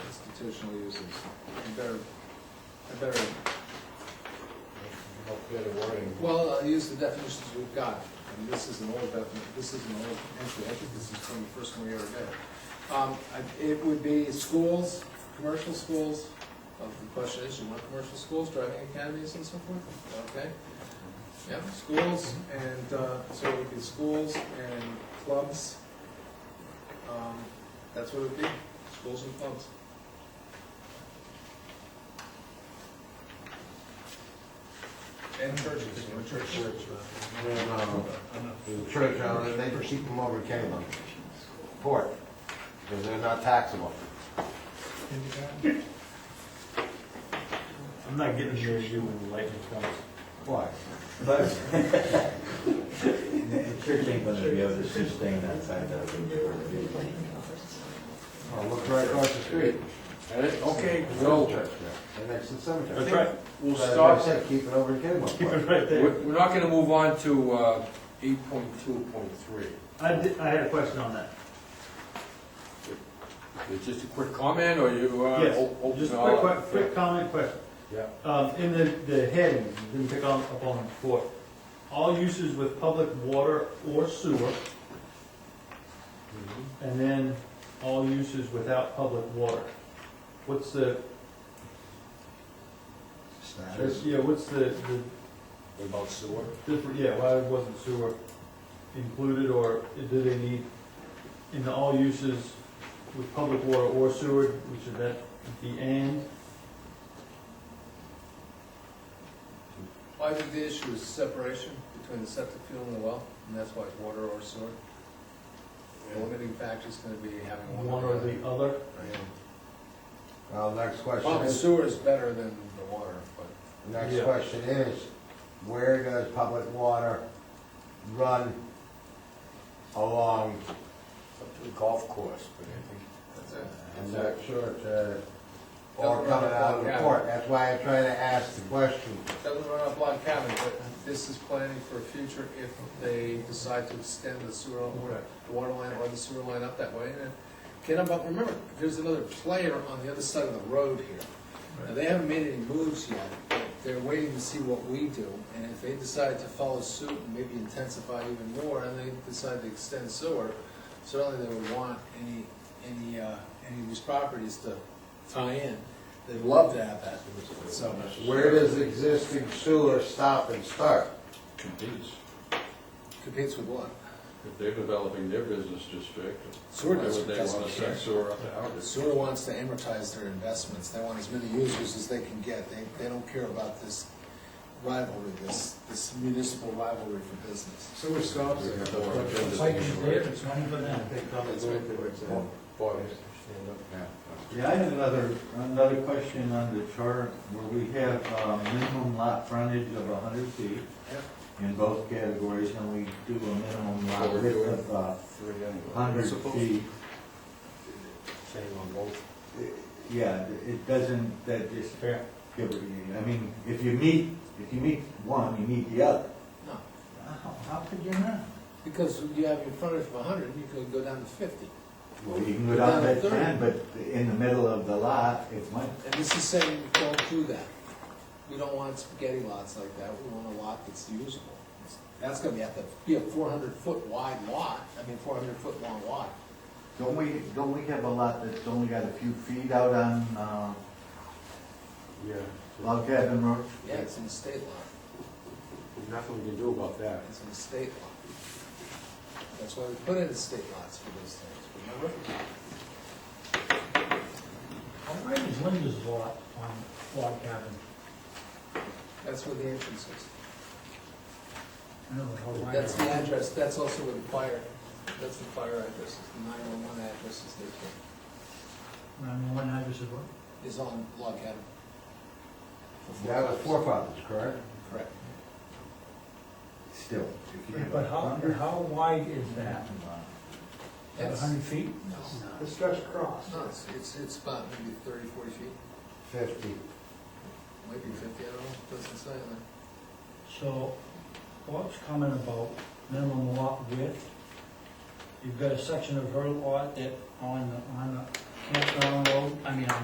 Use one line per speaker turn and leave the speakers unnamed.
institutional uses. I better, I better,
Better wording.
well, I'll use the definitions we've got. And this is an old definition, this is an old entry, I think this is from the first one we ever did. Um, I- It would be schools, commercial schools, of the question is, you want commercial schools, driving academies and so forth? Okay. Yeah, schools, and, uh, so it would be schools and clubs. Um, That's what it would be, schools and clubs. And churches, you know, church.
No, the church, uh, they keep them over Cayman, port, because they're not taxable.
I'm not getting your issue when the lightning comes.
Why?
But it sure ain't gonna be able to sustain that side of it.
Oh, look right across the street.
Okay.
No church there, and next to the cemetery.
That's right.
We'll
But as I
start,
said, keep it over in Cayman.
Keep it right
we're
there.
we're not gonna move on to uh, 8.2.3.
I did, I had a question on that.
It's Just a quick comment, or you uh,
Yes,
o- open
just
it
a
all
quick, que-
up?
quick comment, question.
Yeah.
Um, in the, the heading, you didn't pick on, up on it before, all uses with public water or sewer,
Mm-hmm.
and then all uses without public water. What's the,
Status.
yeah, what's the,
What about sewer?
the, different- yeah, why wasn't sewer included, or do they need, in the all uses with public water or sewer, which should that be and?
Well, I think the issue is separation between the septic field and the well, and that's why it's water or sewer. The limiting factor is gonna be having
One or the other?
Right.
Well, next question
Well, the
is,
sewer is better than the water, but
next
Yeah.
question is, where does public water run along?
Up to the golf course, but I think.
that's it.
I'm not sure, uh, or coming out of the port, that's why I try to ask the question.
Doesn't run up Log Cabin, but this is planning for a future if they decide to extend the sewer, or the water line or the sewer line up that way. And Get them up, remember, there's another player on the other side of the road here. Now, they haven't made any moves yet, they're waiting to see what we do, and if they decide to follow suit and maybe intensify even more, and they decide to extend sewer, certainly they would want any, any, uh, any of these properties to tie in. They'd love to have that, so.
Where does existing sewer stop and start?
competes.
Competes with what?
If they're developing their business district,
Sewer
why would
district
they want to
doesn't care.
send sewer up to our district?
Sewer wants to amortize their investments, they want as many users as they can get, they, they don't care about this rivalry, this, this municipal rivalry for business.
So we're stopped.
We have more agendas than we're-
it's money for them.
uh,
Boy,
Yeah, I had another, another question on the chart where we have uh, minimum lot frontage of hundred feet
Yep.
in both categories, and we do a minimum lot
What we're
width
doing.
of uh,
Three anyway.
hundred
Supposed-
feet.
Same on both.
Yeah, it doesn't, that just, I mean, if you meet, if you meet one, you meet the other.
No,
How, how could you not?
because you have your frontage of a hundred, and you could go down to fifty.
Well, you can go down that plan, but in the middle of the lot, it went,
And this is saying, don't do that. We don't want spaghetti lots like that, we want a lot that's usable. That's gonna be, have to be a four hundred foot wide lot, I mean, four hundred foot long lot.
don't we, don't we have a lot that's only got a few feet out on, uh,
Yeah,
Log Cabin Road?
Yeah, it's an estate lot.
there's nothing we can do about that.
It's an estate lot. That's why we put in estate lots for those things, remember?
How wide is Linda's lot on Log Cabin?
That's where the entrance is.
I don't know how wide.
That's the address, that's also where the fire, that's the fire address, is the nine-one-one address is there,
Around one address is what?
too. is on Log Cabin.
That was forefathers, correct?
Correct.
Still. if you have
But
a
how,
hundred-
how wide is that? About a
That's,
hundred feet?
no,
Let's stretch across.
no, it's, it's, it's about maybe 30, 40 feet,
Fifty.
might be fifty, I don't know, doesn't say on there.
So, Bob's comment about minimum lot width, you've got a section of her lot that on, the on the campground road, I mean, on